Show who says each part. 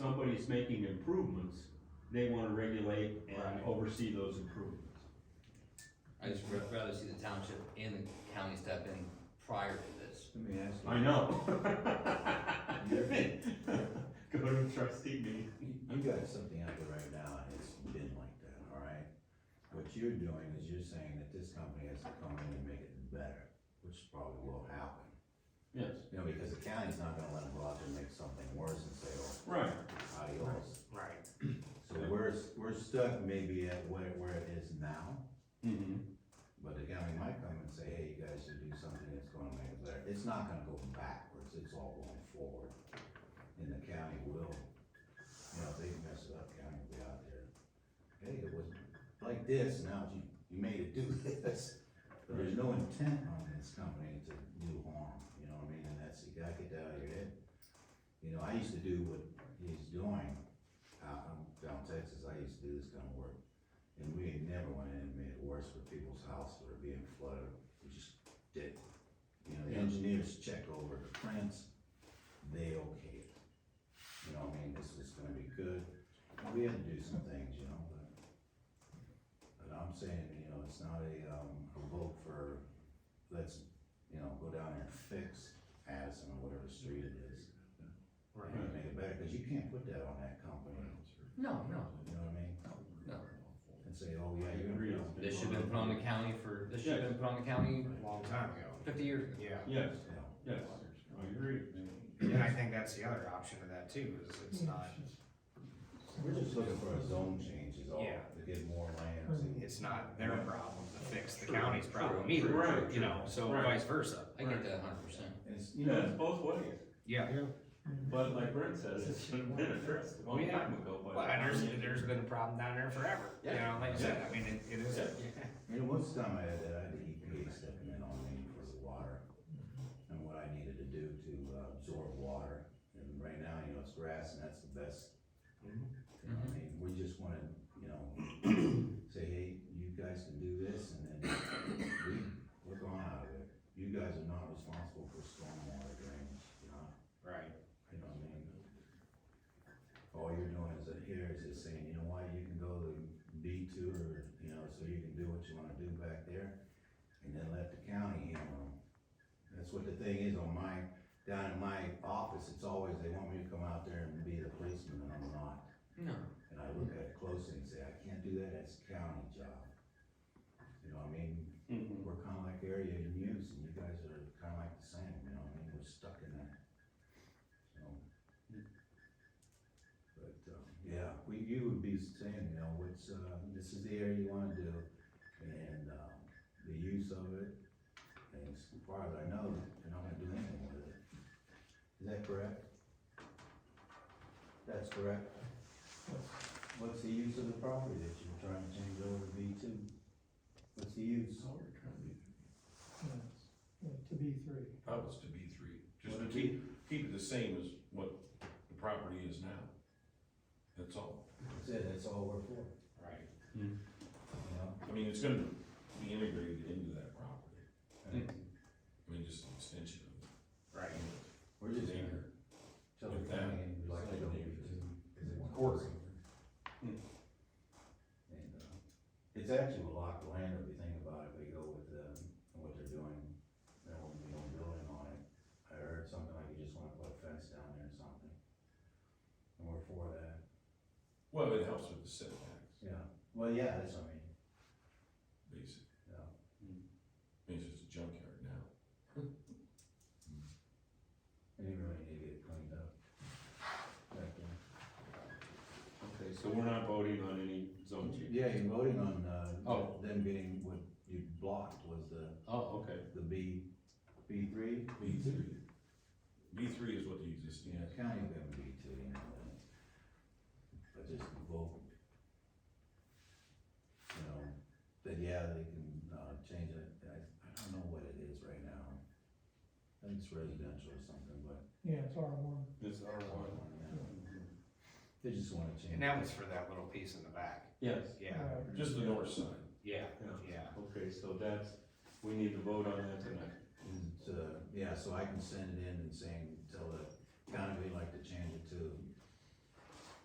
Speaker 1: somebody's making improvements, they wanna regulate and
Speaker 2: Right.
Speaker 1: oversee those improvements.
Speaker 3: I just would rather see the township and the county step in prior to this.
Speaker 4: Let me ask
Speaker 1: I
Speaker 4: you,
Speaker 1: know. Go to trustee meeting.
Speaker 4: you got something out there right now, and it's been like that, all right? What you're doing is you're saying that this company has to come in and make it better, which probably will happen.
Speaker 1: Yes,
Speaker 4: You know, because the county's not gonna let them go out there and make something worse and say, oh,
Speaker 1: right,
Speaker 4: adios.
Speaker 2: Right.
Speaker 4: So we're, we're stuck maybe at where, where it is now,
Speaker 1: mm-hmm,
Speaker 4: but the county might come and say, hey, you guys should do something that's gonna make it better. It's not gonna go backwards, it's all going forward. And the county will, you know, if they mess it up, county will be out there. Hey, it was like this, now you, you made it do this. But there's no intent on this company to do harm, you know what I mean? And that's, you gotta get that out of your head. You know, I used to do what he's doing out in down Texas, I used to do this kind of work. And we had never went in and made it worse for people's houses that are being flooded, we just did. You know, the
Speaker 1: Yeah.
Speaker 4: engineers checked over the prints, they okayed it. You know what I mean, this is gonna be good, we had to do some things, you know, but. But I'm saying, you know, it's not a, um, a vote for, let's, you know, go down there and fix Addison or whatever street it is.
Speaker 2: Right.
Speaker 4: And make it better, cause you can't put that on that company,
Speaker 3: No, no,
Speaker 4: you know what I mean?
Speaker 3: no.
Speaker 4: And say, oh,
Speaker 1: I
Speaker 4: yeah, you're
Speaker 1: agree.
Speaker 4: gonna.
Speaker 3: This should have been put on the county for, this should have been put on the county
Speaker 2: A long time ago.
Speaker 3: fifty years ago.
Speaker 2: Yeah.
Speaker 1: yes, yes,
Speaker 4: Yeah.
Speaker 1: I agree.
Speaker 2: And I think that's the other option of that too, is it's not,
Speaker 4: We're just looking for a zone change is all,
Speaker 2: Yeah.
Speaker 4: to get more land.
Speaker 2: it's not their problem to fix the county's problem either,
Speaker 1: Right.
Speaker 2: you know, so
Speaker 1: Right.
Speaker 2: vice versa.
Speaker 3: I get that hundred percent.
Speaker 4: And it's, you
Speaker 1: You know,
Speaker 4: know,
Speaker 1: it's both ways,
Speaker 2: Yeah.
Speaker 1: but like Brent says, it should have been addressed a long
Speaker 2: Yeah.
Speaker 1: time ago, but.
Speaker 2: Well, and there's, there's been a problem down there forever, you know, like I said, I mean, it, it is.
Speaker 1: Yeah.
Speaker 4: you know, once time I had that, I had the EPA stepping in on me for the water and what I needed to do to uh, absorb water. And right now, you know, it's grass and that's the best.
Speaker 2: Mhm.
Speaker 4: You know, what I mean, we just wanna, you know, say, hey, you guys can do this and then we, we're gone out of it. You guys are not responsible for stormwater drainage, you know?
Speaker 2: Right.
Speaker 4: You know what I mean? All you're doing is that here is just saying, you know what, you can go to B two or, you know, so you can do what you wanna do back there. And then let the county handle it. That's what the thing is on my, down in my office, it's always, they want me to come out there and be the policeman and I'm not.
Speaker 3: No.
Speaker 4: And I look at it closely and say, I can't do that, that's county job. You know what I mean?
Speaker 1: Mhm.
Speaker 4: We're kinda like area in use and you guys are kinda like the same, you know what I mean? We're stuck in that. So. But, um, yeah, we, you would be saying, you know, what's, uh, this is the area you wanna do and, um, the use of it. And as far as I know, you're not gonna do anything with it. Is that correct? That's correct. What's the use of the property that you're trying to change over to B two? What's the use?
Speaker 5: Yes, uh, to be three.
Speaker 6: That was to B three, just
Speaker 4: Would
Speaker 6: to
Speaker 4: it
Speaker 6: keep, keep it the same as what the property is now. That's all.
Speaker 4: That's it, that's all we're for,
Speaker 2: Right.
Speaker 4: you know?
Speaker 6: I mean, it's gonna be integrated into that property. I mean, just an extension
Speaker 2: Right.
Speaker 6: of it.
Speaker 4: We're just here, tell the county and like to go
Speaker 6: It's
Speaker 4: because
Speaker 6: quarter. Hmm.
Speaker 4: And, uh, it's actually a lot of land if you think about it, we go with, um, what they're doing, there won't be no building on it. I heard something like you just wanna put a fence down there or something. And we're for that.
Speaker 6: Well, it helps with the setbacks,
Speaker 4: Yeah, well, yeah, that's what I mean,
Speaker 6: basically.
Speaker 4: yeah.
Speaker 6: I mean, it's just a junkyard now.
Speaker 4: And you really need to get it cleaned up. uh, Back there.
Speaker 1: Okay, so we're not voting on any zone change?
Speaker 4: Yeah, you're voting on, uh,
Speaker 1: Oh.
Speaker 4: them getting what you blocked was the,
Speaker 1: Oh, okay,
Speaker 4: the B, B three?
Speaker 6: B three. B three is what the existing
Speaker 4: Yeah,
Speaker 6: is.
Speaker 4: county will have a B two, you know, and but just vote. You know, that, yeah, they can, uh, change it, I, I don't know what it is right now. I think it's residential or something, but.
Speaker 5: Yeah, it's R one.
Speaker 1: it's R one.
Speaker 4: They just wanna change.
Speaker 2: And that was for that little piece in the back.
Speaker 1: Yes,
Speaker 2: Yeah,
Speaker 6: Just the north side.
Speaker 2: yeah,
Speaker 1: Yeah.
Speaker 2: yeah.
Speaker 1: okay, so that's, we need to vote on that tonight.
Speaker 4: And, uh, yeah, so I can send it in and saying, tell the county we'd like to change it to